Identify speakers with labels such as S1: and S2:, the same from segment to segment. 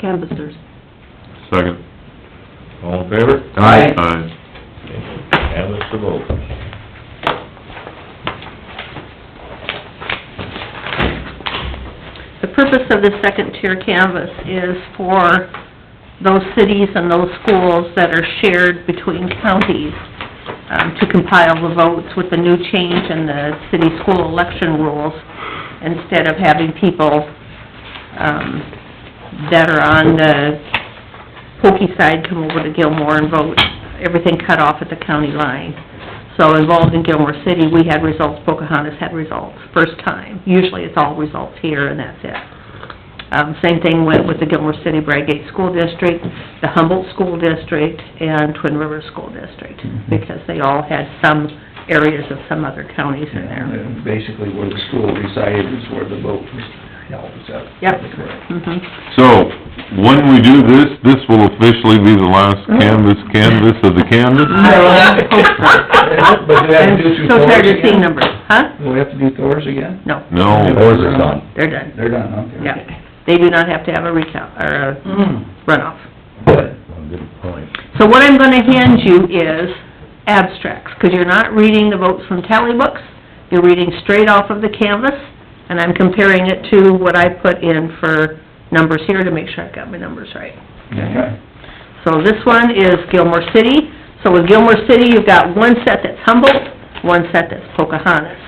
S1: canvassers.
S2: Second.
S3: All in favor?
S1: Aye.
S2: Aye.
S3: And it's the vote.
S1: The purpose of this second-tier canvas is for those cities and those schools that are shared between counties, um, to compile the votes with the new change in the city school election rules, instead of having people, um, that are on the Pokey side come over to Gilmore and vote, everything cut off at the county line. So involved in Gilmore City, we had results, Pocahontas had results, first time. Usually it's all results here and that's it. Um, same thing went with the Gilmore City Bradgate School District, the Humboldt School District, and Twin Rivers School District,
S4: Mhm.
S1: because they all had some areas of some other counties in there.
S4: And Basically where the school resided is where the vote was held, is that?
S1: Yep.
S4: correct?
S1: Mhm.
S2: So, when we do this, this will officially be the last canvas, canvas of the canvas?
S1: I hope so.
S4: But do we have to
S1: uh, I'm
S4: do two
S1: so tired
S4: Thors
S1: of seeing
S4: again?
S1: numbers, huh?
S4: Do we have to do Thors again?
S1: No,
S2: No.
S4: Thors are done.
S1: they're done.
S4: They're done, okay.
S1: Yeah, they do not have to have a recount, or a runoff.
S4: Hmm. Good.
S3: Good point.
S1: So what I'm gonna hand you is abstracts, 'cause you're not reading the votes from tally books, you're reading straight off of the canvas, and I'm comparing it to what I put in for numbers here to make sure I've got my numbers right.
S4: Okay.
S1: So this one is Gilmore City. So with Gilmore City, you've got one set that's Humboldt, one set that's Pocahontas,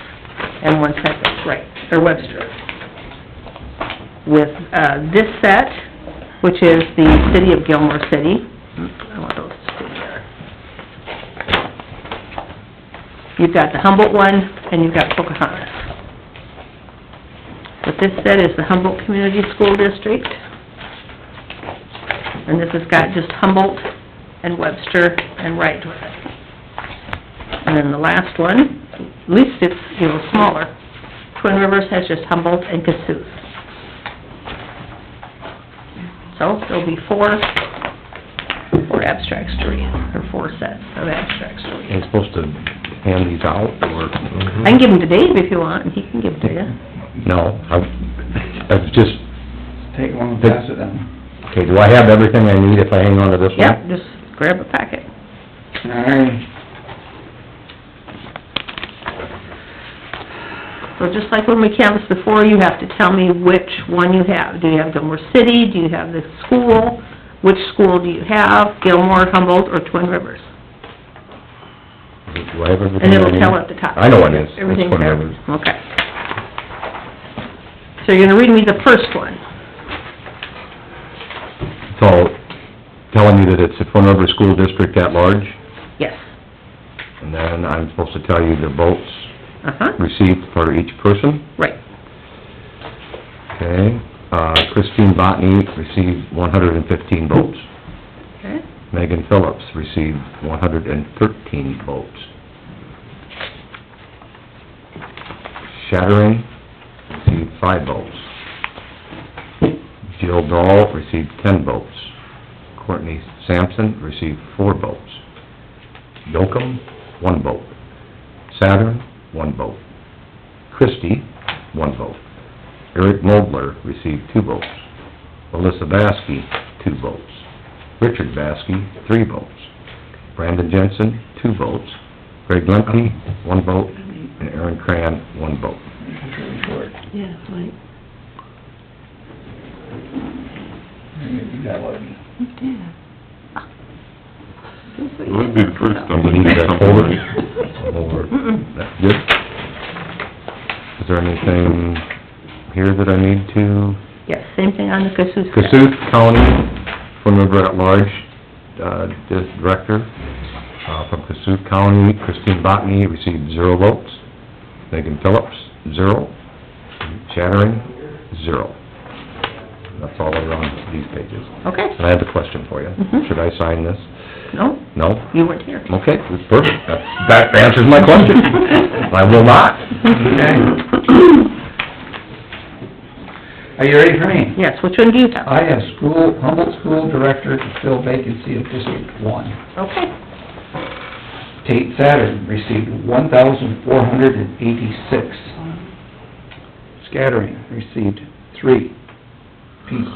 S1: and one set that's Wright, or Webster. With, uh, this set, which is the city of Gilmore City, I want those to stay there. You've got the Humboldt one, and you've got Pocahontas. What this set is the Humboldt Community School District and this has got just Humboldt and Webster and Wright with it. And then the last one, at least it's, you know, smaller, Twin Rivers has just Humboldt and Cassuth. So there'll be four, four abstracts to read, or four sets of abstracts to read.
S3: Ain't supposed to hand these out, or?
S1: I can give them to Dave if you want, and he can give them to you.
S3: No, I, I just,
S4: Take one and pass it down.
S3: okay, do I have everything I need if I hang on to this one?
S1: Yep, just grab a packet.
S4: All right.
S1: So just like when we canvassed before, you have to tell me which one you have. Do you have Gilmore City, do you have the school? Which school do you have, Gilmore, Humboldt, or Twin Rivers?
S3: Do I have everything?
S1: And
S3: I
S1: it'll
S3: need?
S1: tell at the top.
S3: I know it is. It's
S1: Everything's
S3: one
S1: there,
S3: of those.
S1: okay. So you're gonna read me the first one.
S3: So, telling me that it's the Twin River School District at large,
S1: Yes,
S3: and then I'm supposed to tell you the votes
S1: uh-huh,
S3: received for each person,
S1: right,
S3: okay? Uh, Christine Botany received one hundred and fifteen votes.
S1: okay,
S3: Megan Phillips received one hundred and thirteen votes. Shattering received five votes. Jill Dahl received ten votes. Courtney Sampson received four votes. Yocum, one vote. Saturn, one vote. Christie, one vote. Eric Mobler received two votes. Alyssa Baskey, two votes. Richard Baskey, three votes. Brandon Jensen, two votes. Greg Lemke, one vote, and Aaron Cran, one vote.
S4: It's really short.
S1: yeah, right.
S4: You got one.
S2: That'd be the first time we
S3: You
S2: did
S3: need that
S2: something
S3: folder?
S2: like...
S3: Over.
S1: Mm-mm.
S3: That's good. Is there anything here that I need to?
S1: Yes, same thing on the Cassuth. set.
S3: Cassuth County, from River at Large, uh, Director, uh, from Cassuth County, Christine Botany received zero votes. Megan Phillips, zero. Chattering, zero. That's all around these pages.
S1: Okay,
S3: And I have a question for you.
S1: Mhm.
S3: Should I sign this?
S1: no,
S3: No?
S1: you weren't here.
S3: Okay, that's perfect. That- That answers my question. I will not.
S4: Are you ready for me?
S1: Yes, which one do you have?
S4: I have school, Humboldt School Director to fill vacancy of District One.
S1: Okay.
S4: Tate Saturn received one thousand four hundred and eighty-six. Scattering received three. Pete